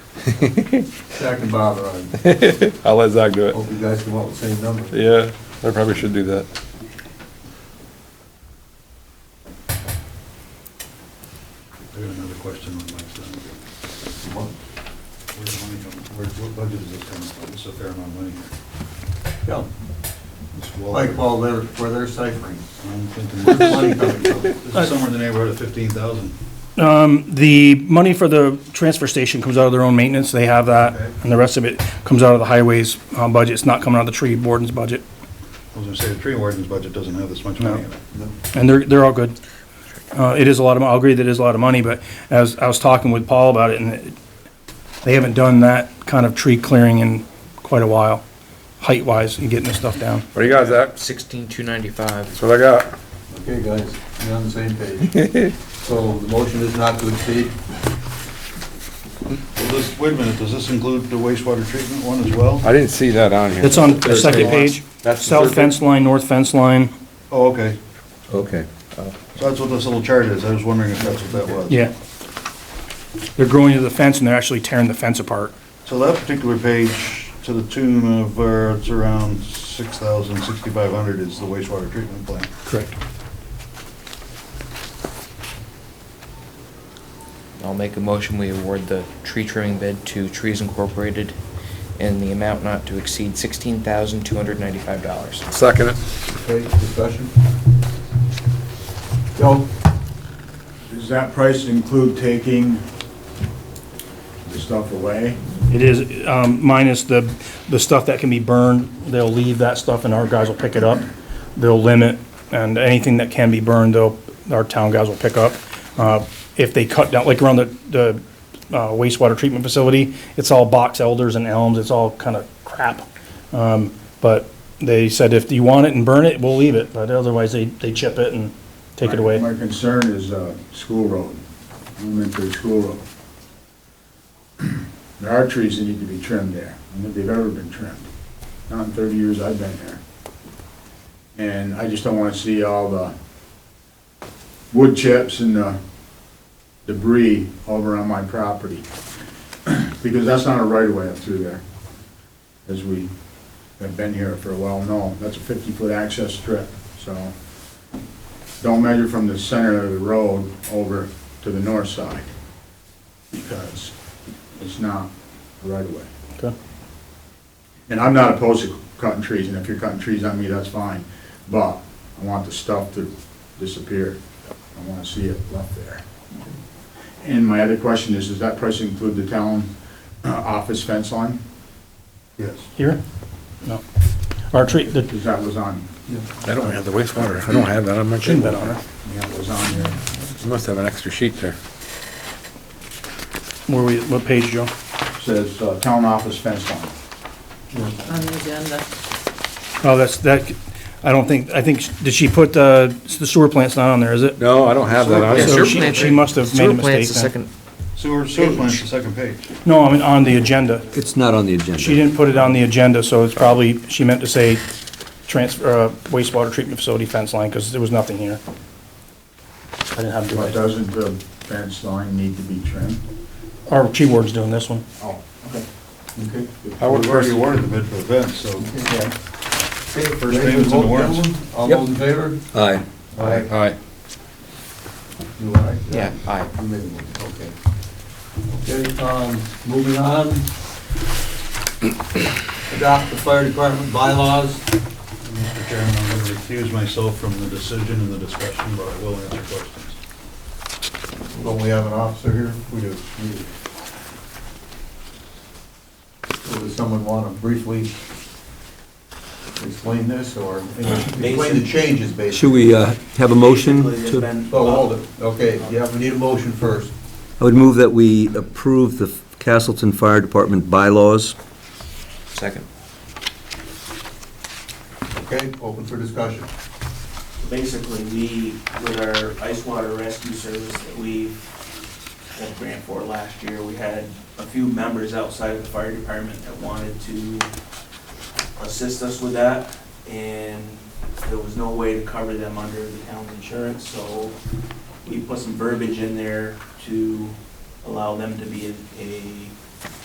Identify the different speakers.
Speaker 1: Zach and Bob are on. Hope
Speaker 2: I'll let Zach do it.
Speaker 1: you guys come up with the same number.
Speaker 2: Yeah, I probably should do that.
Speaker 3: I got another question on Mike's end.
Speaker 1: What?
Speaker 3: Where's the money coming, where, what budget is this coming from? It's a fair amount of money here.
Speaker 1: Yeah.
Speaker 3: It's well-
Speaker 1: Like, well, they're, where they're ciphering.
Speaker 3: I'm thinking,
Speaker 1: Where's the
Speaker 3: this
Speaker 1: money coming from?
Speaker 3: is somewhere in the neighborhood of fifteen thousand.
Speaker 4: Um, the money for the transfer station comes out of their own maintenance, they have that,
Speaker 3: Okay.
Speaker 4: and the rest of it comes out of the highways, uh, budget, it's not coming out of the tree warden's budget.
Speaker 3: I was gonna say, the tree warden's budget doesn't have this much
Speaker 4: No.
Speaker 3: money in it.
Speaker 4: And they're, they're all good. Uh, it is a lot of, mo- I'll agree that it is a lot of money, but as, I was talking with Paul about it, and it- they haven't done that kind of tree clearing in quite a while, height-wise, and getting this stuff down.
Speaker 2: What do you got, Zach?
Speaker 5: Sixteen two ninety-five.
Speaker 2: That's what I got.
Speaker 1: Okay, guys, we're on the same page. So the motion is not to exceed,
Speaker 3: Well, this, wait a minute, does this include the wastewater treatment one as well?
Speaker 2: I didn't see that on here.
Speaker 4: It's on the second page,
Speaker 2: That's the
Speaker 4: south
Speaker 2: third
Speaker 4: fence line, north fence line,
Speaker 3: Oh, okay,
Speaker 6: Okay.
Speaker 3: so that's what this little chart is, I was wondering if that's what that was.
Speaker 4: yeah. They're growing to the fence and they're actually tearing the fence apart.
Speaker 3: So that particular page, to the tune of, uh, it's around six thousand, sixty-five hundred is the wastewater treatment plant.
Speaker 4: Correct.
Speaker 5: I'll make a motion, we award the tree trimming bid to Trees Incorporated in the amount not to exceed sixteen thousand two hundred ninety-five dollars.
Speaker 2: Second it.
Speaker 1: okay, discussion? Joe?
Speaker 7: Does that price include taking the stuff away?
Speaker 4: It is, um, minus the, the stuff that can be burned, they'll leave that stuff and our guys will pick it up. They'll limit, and anything that can be burned, they'll, our town guys will pick up. Uh, if they cut down, like around the, the uh, wastewater treatment facility, it's all box elders and elms, it's all kind of crap. Um, but they said if you want it and burn it, we'll leave it, but otherwise they, they chip it and take it
Speaker 7: My-
Speaker 4: away.
Speaker 7: My concern is uh, school road, elementary school road. There are trees that need to be trimmed there. I don't think they've ever been trimmed. Not in 30 years I've been there. And I just don't want to see all the wood chips and the debris over on my property. Because that's not a right-of-way up through there, as we have been here for a while, no. That's a 50-foot access strip, so don't measure from the center of the road over to the north side, because it's not a right-of-way.
Speaker 4: Okay.
Speaker 7: And I'm not opposed to cutting trees, and if you're cutting trees on me, that's fine, but I want the stuff to disappear. I wanna see it left there. And my other question is, does that price include the town uh, office fence line?
Speaker 3: Yes.
Speaker 4: Here? No. Our tree, the,
Speaker 7: Because that was on,
Speaker 2: I don't have the wastewater. I don't have that on my
Speaker 4: shouldn't have been on it.
Speaker 7: yeah, it was on there.
Speaker 2: You must have an extra sheet there.
Speaker 4: Where we, what page, Joe?
Speaker 7: Says uh, town office fence line.
Speaker 8: on the agenda.
Speaker 4: Oh, that's, that, I don't think, I think, did she put, uh, the sewer plant's not on there, is it?
Speaker 2: No, I don't have that on.
Speaker 4: Yeah,
Speaker 2: it.
Speaker 4: sure. she- she must have made a mistake
Speaker 5: the
Speaker 4: then.
Speaker 5: second.
Speaker 3: Sewer, sewer plant's the
Speaker 5: Page.
Speaker 3: second page.
Speaker 4: No, I mean, on the agenda.
Speaker 6: It's not on the agenda.
Speaker 4: She didn't put it on the agenda, so it's probably, she meant to say transfer, uh, wastewater treatment facility fence line, because there was nothing here. I didn't have
Speaker 7: But
Speaker 4: to,
Speaker 7: doesn't the fence line need to be trimmed?
Speaker 4: our tree ward's doing this one.
Speaker 7: Oh, okay.
Speaker 1: Okay.
Speaker 2: I would
Speaker 3: We've already
Speaker 2: first,
Speaker 3: awarded the bid for the fence, so
Speaker 1: Okay.
Speaker 3: First name is in the warrants.
Speaker 1: All those in favor?
Speaker 6: Aye.
Speaker 1: Aye.
Speaker 2: aye.
Speaker 1: You aye?
Speaker 5: Yeah, aye.
Speaker 1: You made a motion, okay. Okay, um, moving on. Adopt the fire department bylaws.
Speaker 3: Mr. Chairman, I'm going to recuse myself from the decision and the discussion, but I will answer questions.
Speaker 1: Don't we have an officer here? We do. we do. So Does someone want to briefly explain this or explain the changes basically?
Speaker 6: Should we uh, have a motion to,
Speaker 1: Oh, hold it. Okay, yeah, we need a motion first.
Speaker 6: I would move that we approve the Castleton Fire Department bylaws.
Speaker 5: Second.
Speaker 1: Okay, open for discussion.
Speaker 9: basically, we, with our ice water rescue service that we got a grant for last year, we had a few members outside of the fire department that wanted to assist us with that, and there was no way to cover them under the town insurance, so we put some verbiage in there to allow them to be a- a